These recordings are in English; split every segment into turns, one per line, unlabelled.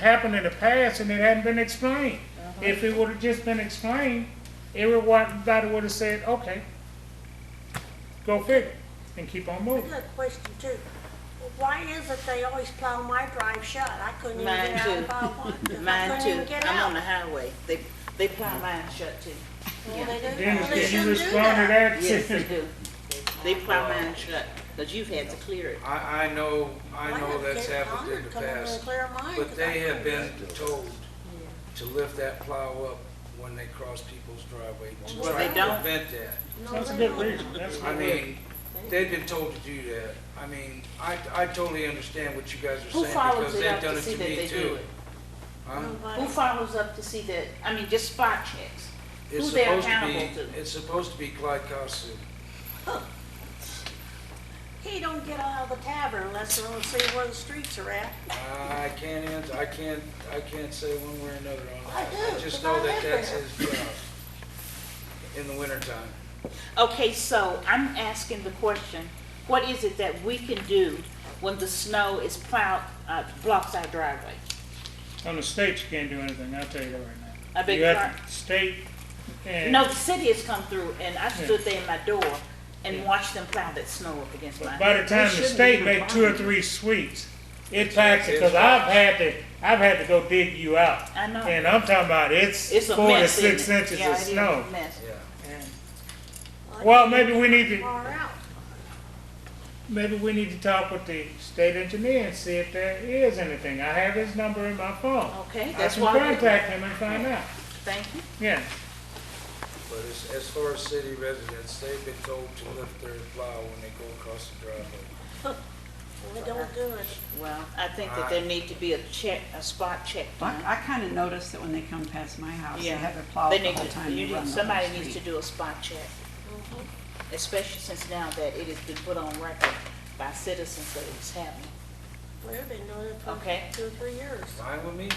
happened in the past and it hadn't been explained.
Uh-huh.
If it would've just been explained, everybody would've said, okay, go figure, and keep on
I
moving.
got a question too. Why is it they always plow my drive shut? I couldn't even
Mine
get out
too.
if I wanted to. I
Mine
couldn't even
too.
get
I'm on the
out.
highway. They, they plow mine shut too. Oh,
Well, they do-
Dennis,
they
can
shouldn't
you
do
respond to
that.
that?
Yes, they do. They plow mine shut, cause you've had to clear it.
I, I know, I
Why
know
not
that's
get
happened
Connor
in
to
the
come over and
past,
clear mine,
but
'cause I
they have
couldn't-
been told to lift that plow up when they cross people's driveway to
Well,
try
they
to
don't.
prevent that.
No,
That's a
they
good
don't.
reason, that's a
I
good reason.
mean, they've been told to do that. I mean, I, I totally understand what you guys are
Who
saying
follows
because
it up
they've done
to
it
see
to
that
me
they do
too.
it?
Huh?
Who
Nobody-
follows up to see that, I mean, just spot checks?
It's
Who they're
supposed to
accountable
be-
to?
It's supposed to be Clyde Costin.
He don't get out of the tavern unless they want to see where the streets are at.
I can't answer, I can't, I can't say one way or another on
I
that.
do,
just
'cause
know
I live
that that's
there.
his job in the wintertime.
Okay, so I'm asking the question, what is it that we can do when the snow is plowed, uh, blocks our driveway?
On the state, you can't do anything, I'll tell you that right now.
I beg
You
your
have
pardon?
to state and.
No, the city has come through and I stood there in my door and watched them plow that snow up against my.
By the time the state make two or three sweeps, it packs it, cause I've had to, I've had to go dig you out.
I know.
And I'm talking about it's
It's a
four to
mess, isn't
six
it?
inches
Yeah,
of
it is a
snow.
mess.
Yeah.
Well, maybe we need to,
Far out.
maybe we need to talk with the state engineer and see if there is anything. I have his number in my phone.
Okay,
I
that's
can
why we-
Contact him and find out,
Thank you.
yeah.
But as, as far as city residents, they've been told to lift their plow when they go across the driveway.
They don't do it.
Well, I think that there need to be a check, a spot check. done.
I, I kind of notice that when they come past my house, they
Yeah.
have it plowed
They
the
need
whole
to-
time.
you
they
need-
run the whole
Somebody needs to
street.
do a spot check, Mm-hmm. especially since now that it has been put on record by citizens that it's happening.
Well, They've been doing it
Okay.
for two or three years.
Fine with me?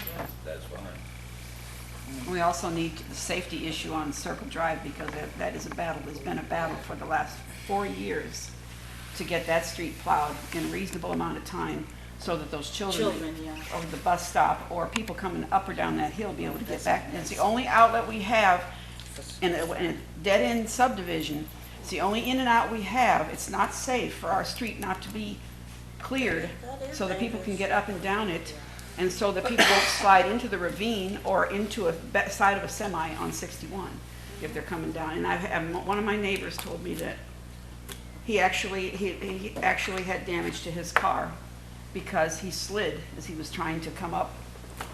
That's fine.
We also need the safety issue on Circle Drive because that, that is a battle, there's been a battle for the last four years to get that street plowed in a reasonable amount of time so that those children.
Children, yeah.
Over the bus stop or people coming up or down that hill be able to get back. And It's the only outlet we have in a, in a dead-end subdivision. It's the only in and out we have. It's not safe for our street not to be cleared so that people can get up and down it, and so that people won't slide into the ravine or into a be- side of a semi on 61 if they're coming down. And I have, one of my neighbors told me that he actually, he, he actually had damage to his car because he slid as he was trying to come up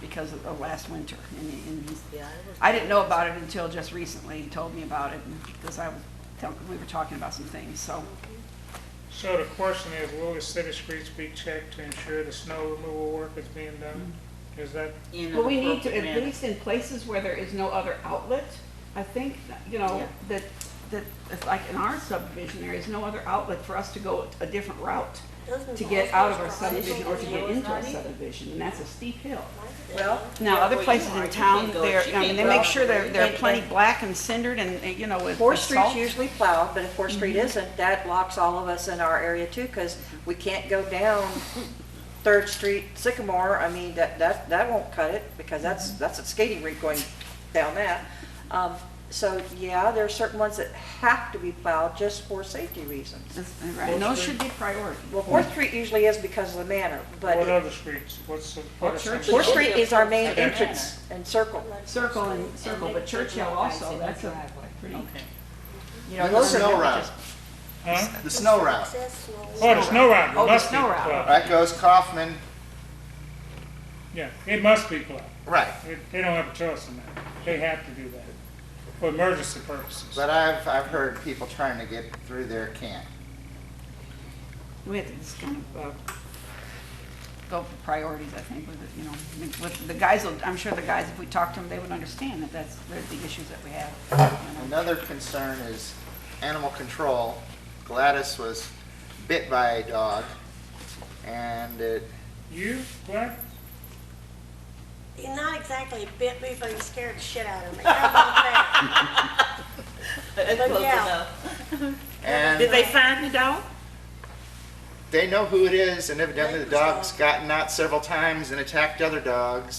because of the last winter. And, and he's-
Yeah, it was-
I didn't know about it until just recently, he told me about it, because I was, tell- we were talking about some things, so.
So the question is, will the city streets be checked to ensure the snow removal work is being done? Is that,
in an
Well, we need to,
appropriate
at
manner.
least in places where there is no other outlet, I think, you know,
Yeah.
that, that, it's like in our subdivision, there is no other outlet for us to go a different route
Doesn't
to get out of our
Boswell's drive
subdivision or to
go
get
in?
into our subdivision, and that's a steep hill.
Well.
Now,
yeah,
other
where you
places
are,
in
you
town,
can't go-
they're,
you
I mean,
can't
they
go
make
out
sure
there.
they're, they're
They-
plenty
they-
black and cindered and, uh, you know, with with
Fourth Street's
salt.
usually plowed, but if Fourth Street isn't, that blocks all of us in our area too, because we can't go down Third Street Sycamore. I mean, that, that, that won't cut it, because that's, that's a skating rink going down that. Um, So, yeah, there are certain ones that have to be plowed just for safety reasons.
That's- Right, and those should be priority.
Well, Fourth Street usually is because of the manor,
what
but
other streets? What's, the- what are some?
Churches.
Fourth Street is our main
Okay.
entrance and circle.
Circle and, circle, but Churchill also, that's a pretty,
Okay.
you
And
know,
the
those are.
snow
really
route,
just-
Huh?
the snow route.
Successful.
Oh, the snow route
Oh, the
must be
snow route.
plowed.
That goes Kaufman,
Yeah, it must be plowed.
right.
It- They don't have a choice in that. They have to do that for emergency purposes.
But I've, I've heard people trying to get through there can't.
We have to just kind of uh, go for priorities, I think, with, it, you know, with the guys, will- I'm sure the guys, if we talked to them, they would understand that that's, they're the issues that we have. you know.
Another concern is animal control. Gladys was bit by a dog and it,
You, what?
He not exactly bit me, but he scared the shit out of me. How about that?
That's close
yeah.
enough. Did
and
they find the dog?
they know who it is and evidently the dog's gotten out several times and attacked other dogs